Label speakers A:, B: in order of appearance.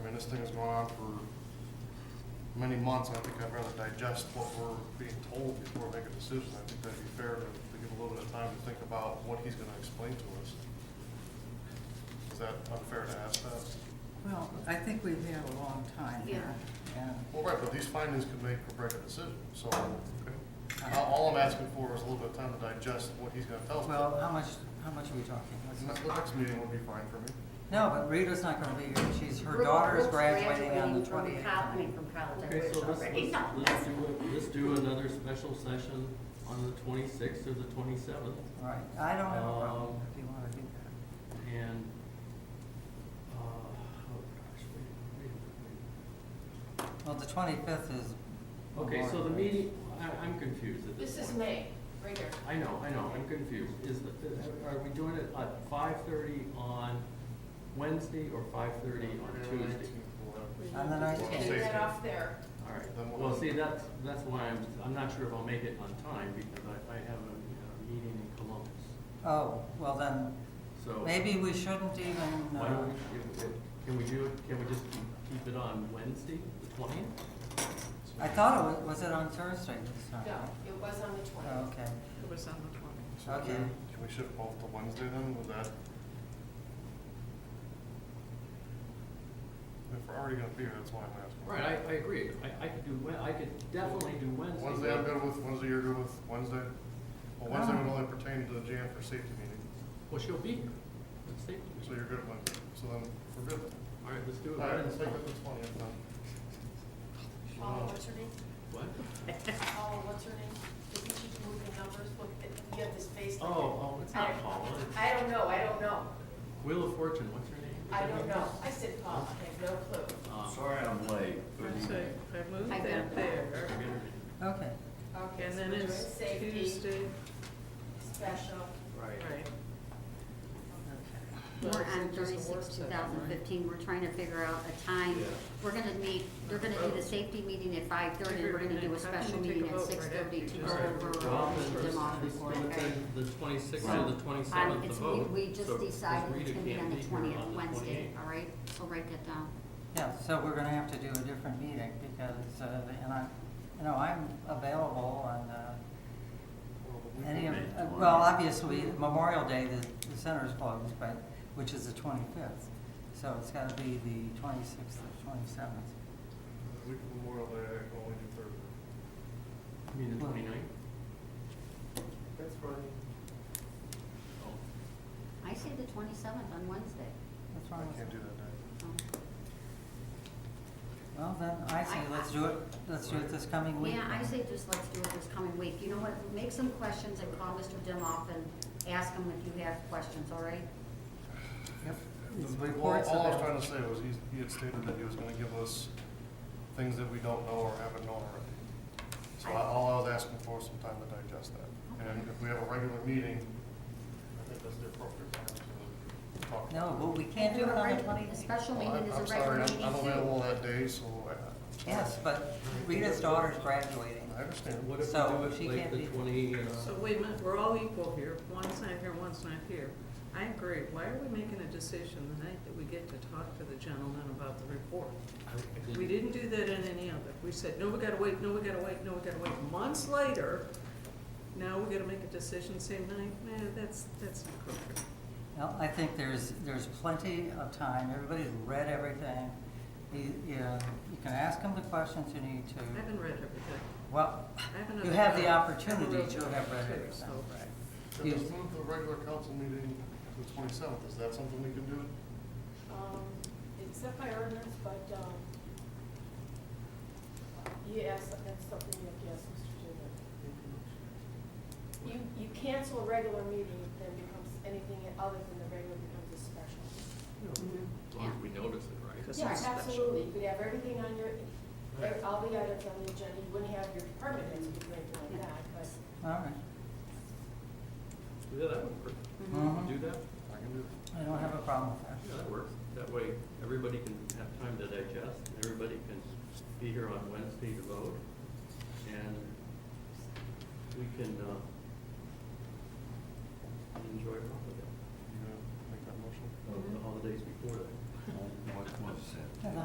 A: this thing has gone on for many months, I think I'd rather digest what we're being told before I make a decision. I think that'd be fair to to give a little bit of time to think about what he's gonna explain to us. Is that unfair to ask that?
B: Well, I think we've had a long time here. and
A: Well, right, but these findings could make or break a decision, so all- all I'm asking for is a little bit of time to digest what he's gonna tell us.
B: Well, how much, how much are we talking? Let's-
A: The next meeting will be fine for me.
B: No, but Rita's not gonna be here, she's, her
C: Brooke-
B: daughter is
C: Brooke's
B: graduating on the
C: from
B: twenty-eighth.
C: col- I mean, from college, I
D: Okay,
C: wish
D: so let's,
C: already.
D: let's, let's do, it- let's do another special session on the twenty-sixth or the twenty-seventh,
B: Right, I don't have a problem
D: Um,
B: if you wanna do that.
D: and, uh, oh gosh, wait, wait,
B: Well, the twenty-fifth is.
D: wait. Okay, so
B: Memorial
D: the
B: Day.
D: meeting, I, I'm confused at this
E: This is
D: point.
E: May, right here.
D: I know, I know, I'm confused, is, the- are we doing it at five-thirty on Wednesday or five-thirty on Tuesday?
B: On the nineteenth.
E: Take that off there.
D: All
A: Then
D: right,
A: we'll-
D: well, see, that's, that's why I'm, I'm not sure if I'll make it on time, because I, I have a, a meeting in Columbus,
B: Oh, well then,
D: so.
B: maybe we shouldn't even,
D: Why
B: uh,
D: don't, we- if- if- can we do, it? can we just keep it on Wednesday, the twentieth?
B: I thought it was, was it on Thursday this time?
E: No, it was on the
B: Oh,
E: twentieth.
B: Okay,
F: It was on the twenty.
A: So
B: Okay.
A: Can can we shift both to Wednesday then, would that? If we're already gonna be here, that's why I'm asking.
D: Right, I, I agree, I, I could do, Wed- I could definitely do Wednesday.
A: Wednesday I'm good with, Wednesday you're good with, Wednesday? Well, Wednesday would
B: Um.
A: only pertain to the jam for safety meeting,
D: Well, she'll be here, let's take, it.
A: so you're good Wednesday, so then we're good.
D: all right, let's do it
A: All right, let's
D: Wednesday.
A: take it to the twentieth then.
E: Paula, what's her name?
D: What?
E: Paula, what's her name? Didn't she move the numbers? Look, at- you have this face
D: Oh,
E: like.
D: oh, it's not Paula, it's
E: I don't know, I don't know.
D: Wheel of Fortune, what's her name?
E: I don't know. I said Paula, I have no clue.
D: Uh,
G: Sorry I'm late. Good
F: So
G: evening.
F: I moved
C: I got
F: that
C: that.
F: there.
B: okay.
E: Okay,
F: And
E: so
F: then
E: we're doing
F: it's
E: safety,
F: Tuesday,
E: special.
D: Right.
F: right.
C: We're on
F: Well, it's just a work
C: thirty-six, two
F: session,
C: thousand
F: right?
C: fifteen, we're trying to figure out a time.
G: Yeah.
C: We're gonna meet, they're gonna do the safety meeting at five thirty, we're gonna do a
F: How can you
C: special
F: take a
C: meeting at
F: vote right
C: six thirty to
F: after
C: go
F: you
D: All right,
C: over
D: well,
C: all
D: then
C: of them all
D: let's-
C: before.
D: let's do
C: okay?
D: it The twenty-sixth or the
C: Um,
D: twenty-seventh to
C: it's, we,
D: vote.
C: we just
D: So, 'cause
C: decided it's
D: Rita
C: gonna be
D: can't
C: on the
D: here on
C: twentieth,
D: the
C: Wednesday,
D: 28th.
C: all right? So write that down.
B: Yeah, so we're gonna have to do a different meeting because, uh, and I, you know, I'm available on, uh, any of, uh, well, obviously Memorial Day, the, the center's closed, but, which is the twenty-fifth. So it's gotta be the twenty-sixth or twenty-seventh.
A: Week of Memorial Day, I can only do Thursday.
D: You mean the
B: Well-
D: twenty-ninth?
F: That's right.
C: I say the twenty-seventh on Wednesday.
B: What's wrong
A: I
B: with
A: can't
B: that?
A: do that day.
C: Um,
B: Well, then, I say,
C: I-
B: let's do it, let's do it this coming week.
C: Yeah, I
B: then.
C: say just let's do it this coming week. You know what, make some questions and call Mr. Dimoff and ask him if you have questions, all right?
B: Yep. These
A: Well,
B: reports
A: All I was
B: about-
A: trying to say was he's, he had stated that he was gonna give us things that we don't know or haven't known already. So I, all I was asking for was some time to digest that. And if we have a regular meeting, I think that's the appropriate time to talk. about
B: No,
A: it.
B: but we can't do it on the
C: The
B: twenty-sixth.
C: special
A: Well,
C: meeting
A: Oh, I'm- I'm
C: is a
A: sorry,
C: regular
A: I'm-
C: meeting too.
A: I'm available that day, so I,
B: Yes, but Rita's daughter's graduating.
A: I understand.
D: What if
B: So,
D: we
B: she
D: do it like
B: can't
D: the
B: be-
D: twenty, uh,
F: So wait a minute, we're all equal here. One's not here, one's not here. I agree. Why are we making a decision the night that we get to talk to the gentleman about the report?
D: I- I
F: We didn't do that in any other. We said, no, we gotta wait, no, we gotta wait, no, we gotta wait. Months later, now we gotta make a decision same night? Nah, that's, that's not appropriate.
B: Well, I think there's, there's plenty of time, everybody's read everything. You, you know, you can ask them the questions you need to.
F: I haven't read everything.
B: Well,
F: I have another.
B: you have the
F: job.
B: opportunity
F: I'm a real
B: to have read
F: too,
B: everything.
A: Can
F: so-
A: we move the regular council meeting to the twenty-seventh? Is that something we can do?
E: Um, it's not by ordinance, but, um, yes, that's something you have to ask Mr. Dugan. You, you cancel a regular meeting, then becomes, anything other than the regular becomes a special.
D: As
C: Mm-hmm,
D: long as we notice it, right?
F: 'Cause
E: Yeah,
F: it's special.
E: absolutely, you could have everything on your, ev- all the items on the agenda, you wouldn't have your department heads be great like that, but
B: All right.
D: Yeah, that would work. Do
C: mm-hmm.
F: Mm-hmm.
B: Mhm.
D: that?
A: I can do it.
B: I don't have a problem with that.
D: Yeah, that works. That way, everybody can have time to digest, and everybody can be here on Wednesday to vote. And we can, uh, enjoy all of it,
A: You
F: Mm-hmm.
A: gonna make that motion?
D: all the holidays before that.
G: What was it?